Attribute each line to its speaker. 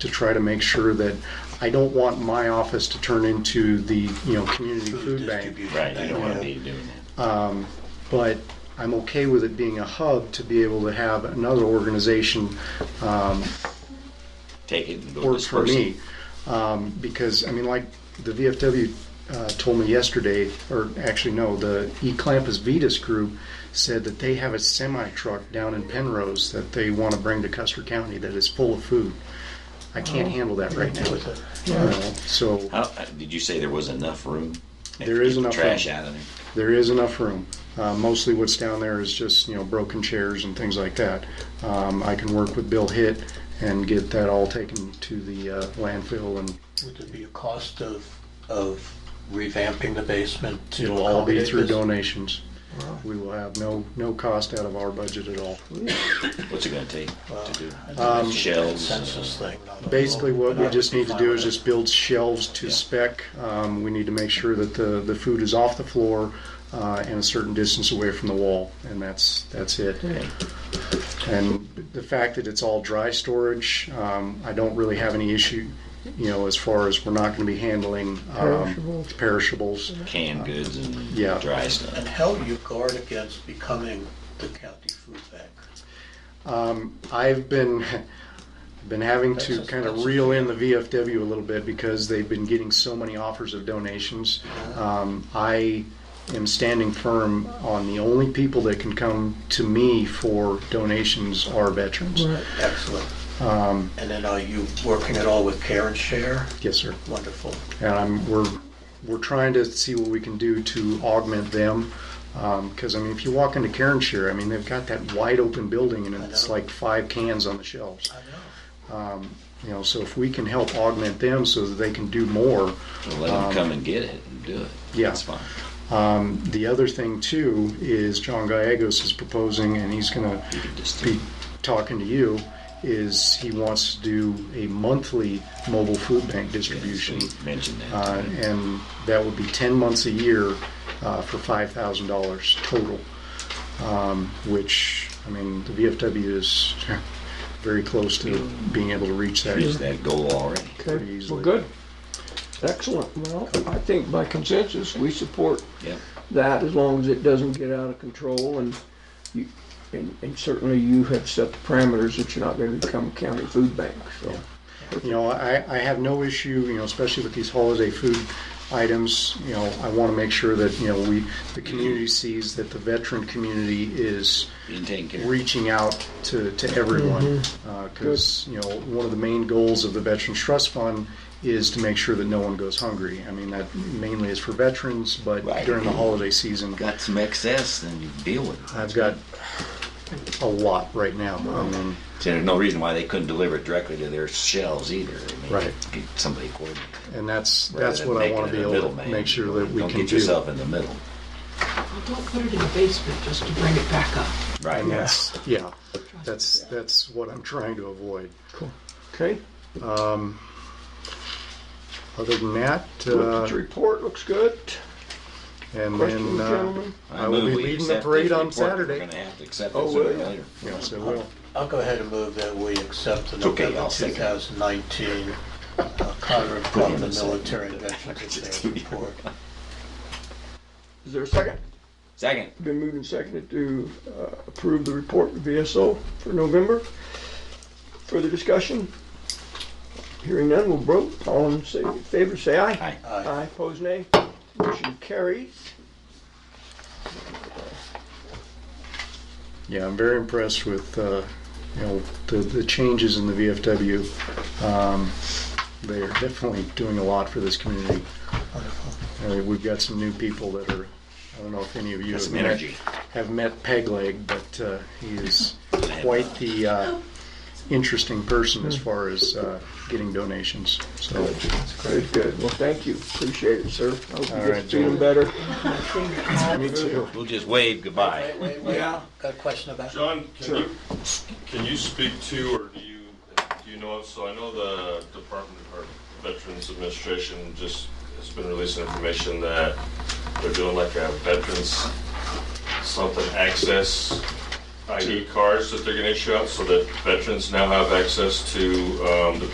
Speaker 1: to try to make sure that I don't want my office to turn into the, you know, community food bank.
Speaker 2: distribution.
Speaker 3: Right, you don't want to be doing that.
Speaker 1: But I'm okay with it being a hub to be able to have another organization
Speaker 3: Take it and go
Speaker 1: works for
Speaker 3: disperse
Speaker 1: me.
Speaker 3: it.
Speaker 1: Um, because, I mean, like the VFW uh, told me yesterday, or actually, no, the Eclampus Vetus group said that they have a semi truck down in Penrose that they want to bring to Custer County that is full of food. I can't handle that right now. You know, So
Speaker 3: How, uh, did you say there was enough room? If
Speaker 1: There
Speaker 3: you
Speaker 1: is
Speaker 3: get the
Speaker 1: enough
Speaker 3: Trash
Speaker 1: room.
Speaker 3: out of there.
Speaker 1: there is enough room. Uh, mostly what's down there is just, you know, broken chairs and things like that. Um, I can work with Bill Hitt and get that all taken to the uh, landfill and
Speaker 2: Would there be a cost of, of revamping the basement to
Speaker 1: It'll all be
Speaker 2: accommodate
Speaker 1: through
Speaker 2: this?
Speaker 1: donations. We will have no, no cost out of our budget at all.
Speaker 3: What's it going to take to do? it?
Speaker 2: Um,
Speaker 3: Shelves. uh,
Speaker 2: Census thing. not a-
Speaker 1: Basically, what we
Speaker 2: I'd
Speaker 1: just
Speaker 2: be
Speaker 1: need to
Speaker 2: fine
Speaker 1: do
Speaker 2: with
Speaker 1: is
Speaker 2: it.
Speaker 1: just build shelves to spec. Um, We need to make sure that the, the food is off the floor uh, and a certain distance away from the wall, and that's, that's it. And the fact that it's all dry storage, um, I don't really have any issue, you know, as far as we're not going to be handling um, perishables.
Speaker 3: Canned goods and
Speaker 1: Yeah.
Speaker 3: dry stuff.
Speaker 2: And how do you guard against becoming the county food bank?
Speaker 1: I've been been having to
Speaker 2: That's-
Speaker 1: kind of
Speaker 2: that's-
Speaker 1: reel in the VFW a little bit because they've been getting so many offers of donations. Um, I am standing firm on the only people that can come to me for donations are veterans.
Speaker 2: Excellent.
Speaker 1: Um,
Speaker 2: And then are you working at all with Care and Share?
Speaker 1: Yes, sir.
Speaker 2: Wonderful.
Speaker 1: and I'm, we're we're trying to see what we can do to augment them. Because I mean, if you walk into Karen Share, I mean they've got that wide open building and
Speaker 2: I
Speaker 1: it's
Speaker 2: know.
Speaker 1: like five cans on the shelves.
Speaker 2: I know.
Speaker 1: You know, so if we can help augment them so that they can do more,
Speaker 3: Well, let them come and get it and do it.
Speaker 1: Um, yeah.
Speaker 3: That's fine.
Speaker 1: The other thing too is John Gallegos is proposing, and he's going
Speaker 3: You
Speaker 1: to
Speaker 3: can just
Speaker 1: be talking to you. Is he wants to do a monthly mobile food bank distribution,
Speaker 3: Mention that.
Speaker 1: uh, and that would be ten months a year uh, for five thousand dollars total. Um, which I mean, the VFW is very close to being able to reach that.
Speaker 3: Reach that goal already.
Speaker 1: pretty
Speaker 4: Okay, well,
Speaker 1: easily.
Speaker 4: good. Excellent. Well, I think by consensus, we support
Speaker 3: Yep.
Speaker 4: that as long as it doesn't get out of control and you, and, and certainly you have set the parameters that you're not gonna become a county food bank, so.
Speaker 1: You know, I, I have no issue, you know, especially with these holiday food items, you know, I want to make sure that, you know, we, the community sees that the veteran community is
Speaker 3: Being taken care of.
Speaker 1: reaching out to, to everyone.
Speaker 3: Mm-hmm.
Speaker 1: Because, you know, one of the main goals of the Veterans Trust Fund is to make sure that no one goes hungry. I mean, that mainly is for veterans, but
Speaker 3: Right.
Speaker 1: during the holiday season,
Speaker 3: Got some excess, then you deal with it.
Speaker 1: I've got a lot right now. I mean,
Speaker 3: See, there's no reason why they couldn't deliver it directly to their shelves either. I mean,
Speaker 1: Right.
Speaker 3: Get somebody coordinated.
Speaker 1: and that's,
Speaker 3: rather
Speaker 1: that's
Speaker 3: than
Speaker 1: what I
Speaker 3: making
Speaker 1: want to
Speaker 3: it
Speaker 1: be
Speaker 3: a
Speaker 1: able to
Speaker 3: middleman.
Speaker 1: make sure that we
Speaker 3: Don't
Speaker 1: can
Speaker 3: get
Speaker 1: do.
Speaker 3: yourself in the middle.
Speaker 5: Don't put it in the basement just to bring it back up.
Speaker 3: Right.
Speaker 1: And that's, yeah, that's, that's what I'm trying to avoid.
Speaker 4: Cool. Okay,
Speaker 1: Other than that,
Speaker 4: the
Speaker 1: uh,
Speaker 4: report looks good.
Speaker 1: and
Speaker 4: Questions,
Speaker 1: then, uh,
Speaker 4: gentlemen?
Speaker 1: I will
Speaker 3: move
Speaker 1: be
Speaker 3: we
Speaker 1: leading the
Speaker 3: accept
Speaker 1: parade
Speaker 3: this
Speaker 1: on
Speaker 3: report. We're
Speaker 1: Saturday.
Speaker 3: going to have to accept
Speaker 4: Oh,
Speaker 3: it sooner or
Speaker 4: will you?
Speaker 3: later.
Speaker 1: Yes, I will.
Speaker 2: I'll go ahead and move that we accept the
Speaker 3: It's okay,
Speaker 2: November
Speaker 3: I'll second.
Speaker 2: 2019 uh, Congress
Speaker 3: Put him
Speaker 2: from the
Speaker 3: in second.
Speaker 2: Military Veterans Affairs Report.
Speaker 4: Is there a second?
Speaker 3: Second.
Speaker 4: Been moved and seconded to uh, approve the report to VSO for November. Further discussion? Hearing none, we'll vote. All in sa- favor, say aye.
Speaker 3: Aye.
Speaker 2: Aye.
Speaker 4: Aye, pose nay. Motion carries.
Speaker 1: Yeah, I'm very impressed with, uh, you know, the, the changes in the VFW. Um, They are definitely doing a lot for this community. Uh, We've got some new people that are, I don't know if any of you
Speaker 3: Got
Speaker 1: have
Speaker 3: some
Speaker 1: met,
Speaker 3: energy.
Speaker 1: have met Pegleg, but uh, he is quite the uh, interesting person as far as uh, getting donations, so.
Speaker 4: Good, good. Well, thank you. Appreciate it, sir. I hope
Speaker 1: All
Speaker 4: you
Speaker 1: right,
Speaker 4: get feeling
Speaker 1: Joel.
Speaker 4: better.
Speaker 1: Me too.
Speaker 3: We'll just wave goodbye.
Speaker 2: Wait, wait, wait.
Speaker 4: Yeah.
Speaker 2: Got a question about?
Speaker 6: John, can you, can you speak to, or do you, do you know, so I know the Department of Veterans Administration just has been releasing information that they're doing like a veterans something access ID cards that they're gonna issue out so that veterans now have access to, um, the